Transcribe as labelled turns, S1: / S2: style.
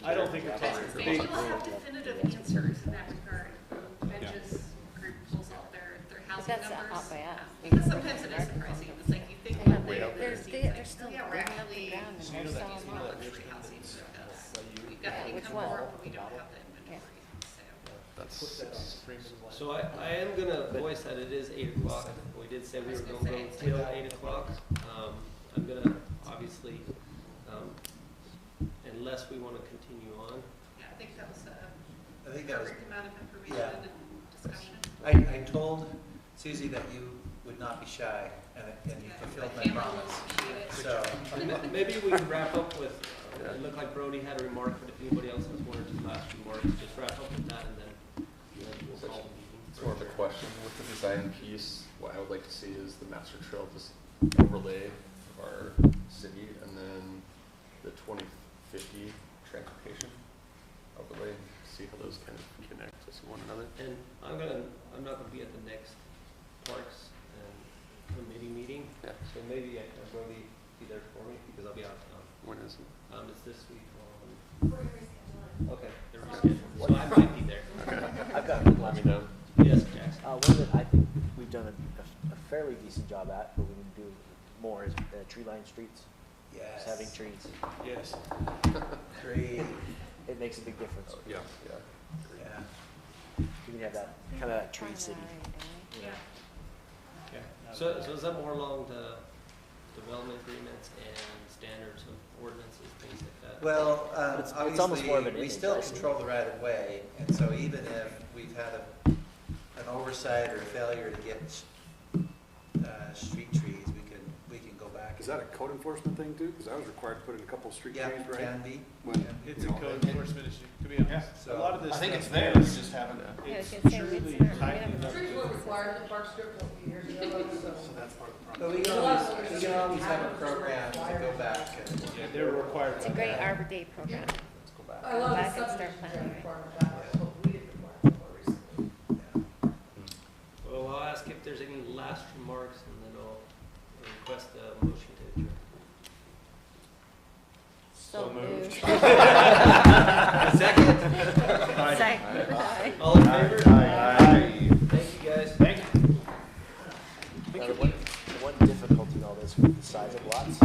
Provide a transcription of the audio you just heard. S1: I don't think it's.
S2: But They will have definitive answers in that regard, benches, groups out there, their housing
S3: that's not
S2: numbers.
S3: by us.
S2: Um, Because sometimes it is surprising, it's like you think one day,
S3: They're, they're,
S2: and then
S3: they're
S2: it
S3: still
S2: seems like, oh yeah,
S3: digging up
S2: we're
S3: the
S2: actually,
S3: ground and they're selling
S2: it's more luxury housing than us. We've got the
S3: which
S2: income
S3: one?
S2: for it, but we don't have the inventory, so.
S4: So I, I am gonna voice that it is eight o'clock, we did say we were gonna go till eight o'clock. Um, I'm gonna, obviously, um, unless we wanna continue on.
S2: Yeah, I think that was a
S5: I think that was,
S2: perfect amount of information
S5: Yeah.
S2: and discussion.
S5: I, I told Susie that you would not be shy, and, and you
S2: Yeah,
S5: fulfilled my
S2: my family
S5: promise.
S2: will appreciate it.
S5: So,
S4: And ma- Maybe we can wrap up with, uh, it looked like Brody had a remark, but if anybody else has one or two last remarks, just wrap up with that and then- and then we'll call
S6: It's
S4: the
S6: more of
S4: meeting.
S6: a question. With the design piece, what I would like to see is the master trail just overlay of our city and then the twenty fifty transportation overlay, see how those kind of connect to one another.
S4: And I'm gonna, I'm not gonna be at the next parks and committee meeting,
S6: Yeah.
S4: so maybe I can really be there for me, because I'll be out of town.
S6: When is it?
S4: Um, it's this week on. Okay, they're rescheduled, so I might be there.
S7: I've got one last
S6: Let me
S7: one.
S6: know.
S4: Yes, Jackson.
S7: Uh, one that I think we've done a, a fairly decent job at, but we need to do more is uh, tree lined streets.
S5: yes.
S7: Just having trees,
S4: Yes.
S5: Great,
S7: it makes a big difference.
S6: Oh, Yeah, yeah.
S5: yeah.
S7: We can have that, kind of that tree
S3: Trying to
S7: city.
S3: hide, eh?
S7: you know.
S2: Yeah.
S4: So, so is that more along the development agreements and standards of ordinances, things like that?
S5: Well, um,
S7: It's- it's almost more of
S5: obviously,
S7: an
S5: we
S7: image,
S5: still
S7: I see.
S5: control the right of way, and so even if we've had a, an oversight or a failure to get, uh, street trees, we can, we can go back.
S8: Is that a code enforcement thing too? Because I was required to put in a couple street
S5: Yeah,
S8: trees, right?
S5: can be.
S8: When-
S1: It's a
S8: you know,
S1: code enforcement issue, to be honest. A
S5: So-
S1: lot of this.
S6: I think
S1: stuff
S6: it's there,
S1: is-
S6: we just haven't.
S3: Yeah, I was
S1: It's
S3: gonna say,
S1: surely
S3: it's not- we
S1: tightly
S3: haven't-
S1: enough.
S9: Trees were required in the park strip a few years ago, so.
S5: But we can always, we can always have a program to go back and,
S1: Yeah, they're required.
S3: It's a great Arbor Day program.
S9: I love
S3: Back and
S9: the
S3: start
S9: subdivision
S3: planning.
S9: requirement, that was what we did require more recently.
S5: yeah.
S4: Well, I'll ask if there's any last remarks and then I'll request a motion to adjourn.
S3: So moved.